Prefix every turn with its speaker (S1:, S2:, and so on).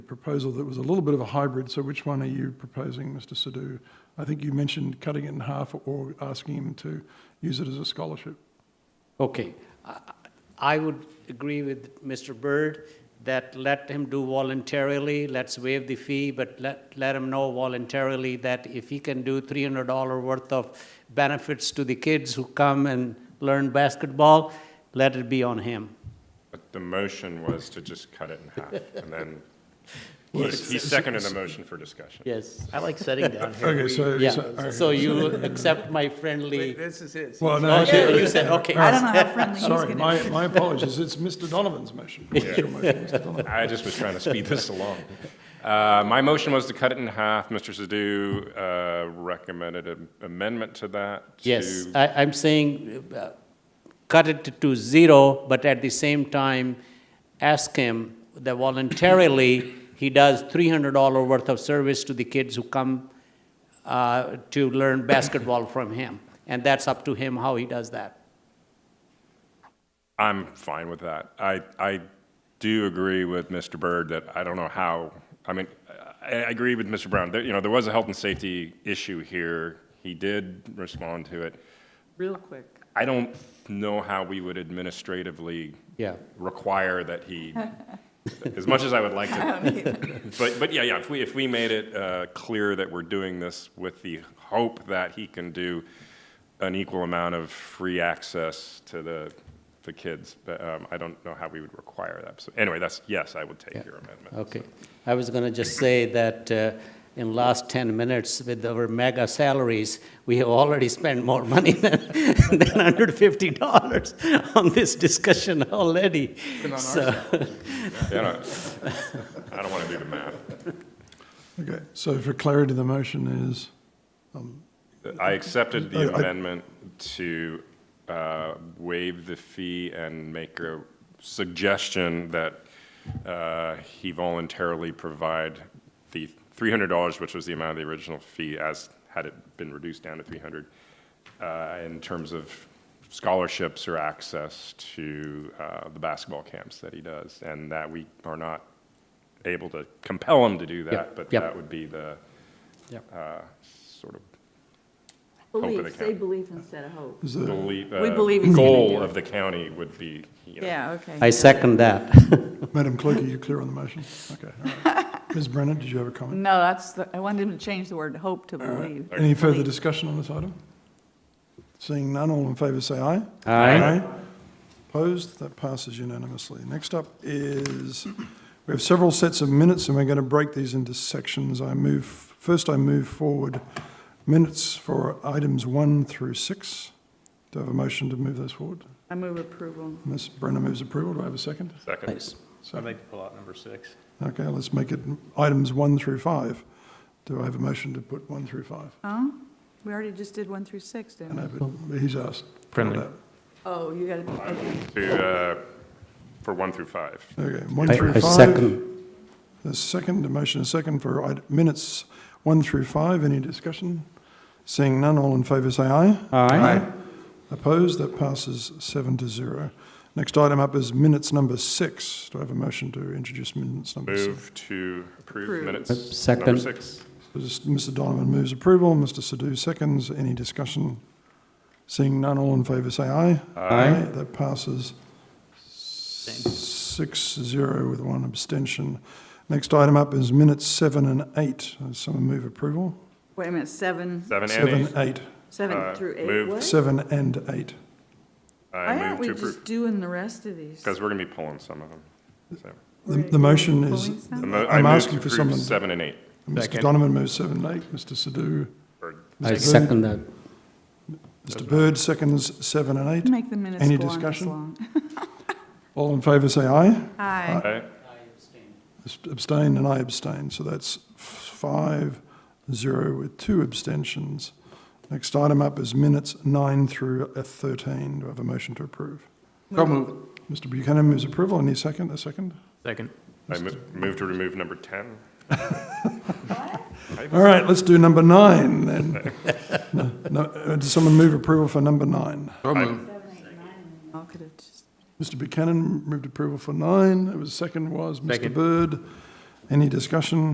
S1: proposal that was a little bit of a hybrid. So which one are you proposing, Mr. Sadhu? I think you mentioned cutting it in half or asking him to use it as a scholarship.
S2: Okay. I- I would agree with Mr. Byrd that let him do voluntarily, let's waive the fee, but let, let him know voluntarily that if he can do $300 worth of benefits to the kids who come and learn basketball, let it be on him.
S3: But the motion was to just cut it in half, and then he he seconded the motion for discussion.
S2: Yes.
S4: I like setting down here.
S1: Okay, so.
S2: Yeah, so
S1: okay.
S2: you accept my friendly,
S5: This is his.
S1: Well, no,
S2: oh,
S1: actually-
S2: you said, okay.
S6: I don't know how friendly he's
S1: Sorry,
S6: going
S1: my,
S6: to
S1: my apologies. It's Mr. Donovan's motion. It's your motion, Mr. Donovan.
S3: I just was trying to speed this along. Uh, My motion was to cut it in half. Mr. Sadoo uh, recommended an amendment to that.
S2: Yes,
S3: to-
S2: I, I'm saying, uh, cut it to zero, but at the same time, ask him that voluntarily, he does three hundred dollar worth of service to the kids who come, uh, to learn basketball from him. And that's up to him how he does that.
S3: I'm fine with that. I, I do agree with Mr. Byrd that I don't know how, I mean, I, I agree with Mr. Brown. There, you know, there was a health and safety issue here. He did respond to it.
S5: Real quick.
S3: I don't know how we would administratively
S2: Yeah.
S3: require that he, as much as I would like to. But, but yeah, yeah, if we, if we made it uh, clear that we're doing this with the hope that he can do an equal amount of free access to the, the kids, but um, I don't know how we would require that. So anyway, that's, yes, I would
S2: Yeah.
S3: take your amendment.
S2: Okay. I was going to just say that uh, in last 10 minutes, with our mega salaries, we have already spent more money than than $150 on this discussion already. So,
S3: You know, I don't want to do the math.
S1: Okay, so for clarity, the motion is,
S3: I accepted
S1: I-
S3: the
S1: I-
S3: amendment to uh, waive the fee and make a suggestion that uh, he voluntarily provide the $300, which was the amount of the original fee, as had it been reduced down to 300, uh, in terms of scholarships or access to uh, the basketball camps that he does, and that we are not able to compel him to do that,
S2: Yep,
S3: but
S2: yep.
S3: that would be the uh, sort of
S6: Belief,
S3: Hope that it
S6: say
S3: counts.
S6: belief instead of hope.
S1: is the,
S3: believe,
S6: We
S3: uh,
S6: believe he's gonna do
S3: goal
S6: it.
S3: of the county would be, you know,
S6: Yeah, okay.
S2: I second that.
S1: Madam Clerk, are you clear on the motion? Okay, all right. Ms. Brennan, did you have a comment?
S6: No, that's, the- I wanted him to change the word hope to believe.
S1: Any further discussion on this item? Seeing none, all in favour say aye.
S2: Aye.
S1: Opposed? That passes unanimously. Next up is, we have several sets of minutes, and we're going to break these into sections. I move, first I move forward minutes for items one through six. Do I have a motion to move those forward?
S6: I move approval.
S1: Ms. Brennan moves approval. Do I have a second?
S3: second.
S4: I'd like to pull out number six.
S1: Okay, let's make it items one through five. Do I have a motion to put one through five?
S6: Oh, we already just did one through six,
S1: I
S6: didn't we?
S1: know, but he's asked. for
S4: Friendly.
S1: that.
S6: Oh, you got to,
S3: To, uh, for one through five.
S1: Okay, one
S2: I
S1: through
S2: I
S1: five.
S2: second.
S1: The second, the motion is second for id- minutes one through five. Any discussion? Seeing none, all in favour say aye. Opposed? That passes seven to zero. Next item up is minutes number six. Do I have a motion to introduce minutes number six?
S3: Move to approve
S6: Approve.
S3: minutes. Number
S2: Second.
S3: six.
S1: Just- Mr Donovan moves approval, Mr Sadoo seconds. Any discussion? Seeing none, all in favour say aye.
S2: Aye.
S1: That passes six zero with one abstention. Next item up is minutes seven and eight. Does Someone move approval?
S6: wait a minute, seven,
S3: Seven and
S1: Seven,
S3: eight.
S1: eight.
S3: Uh,
S6: seven through eight,
S3: move.
S6: what?
S1: Seven and eight.
S3: I
S6: Why aren't
S3: move
S6: we
S3: to
S6: just
S3: approve,
S6: doing the rest of these?
S3: because we're going to be pulling some of them. So,
S1: The, the motion is,
S6: Pulling some?
S3: the mo-
S1: I'm
S3: I move
S1: asking
S3: to
S1: for
S3: approve
S1: someone-
S3: Seven and eight.
S1: Mr Donovan moves seven and eight, Mr Sadoo,
S3: Or-
S2: I
S1: Mr.
S2: second that.
S1: Mr Bird seconds seven and eight.
S6: Make the minutes
S1: Any
S6: go on this
S1: discussion?
S6: long.
S1: All in favour say aye.
S6: Aye.
S3: Okay.
S1: Abstain and I abstain, so that's five, zero with two abstentions. Next item up is minutes nine through uh, 13. Do I have a motion to approve?
S5: Go move.
S1: Mr Buchanan moves approval. Any second? A second?
S4: Second.
S3: I mo- move to remove number 10.
S1: All right, let's do number nine then. No, no, uh, Does someone move approval for number nine?
S5: Go move.
S6: All could have just-
S1: Mr Buchanan moved approval for nine. It was second was Mr
S4: Second.
S1: Bird. Any discussion?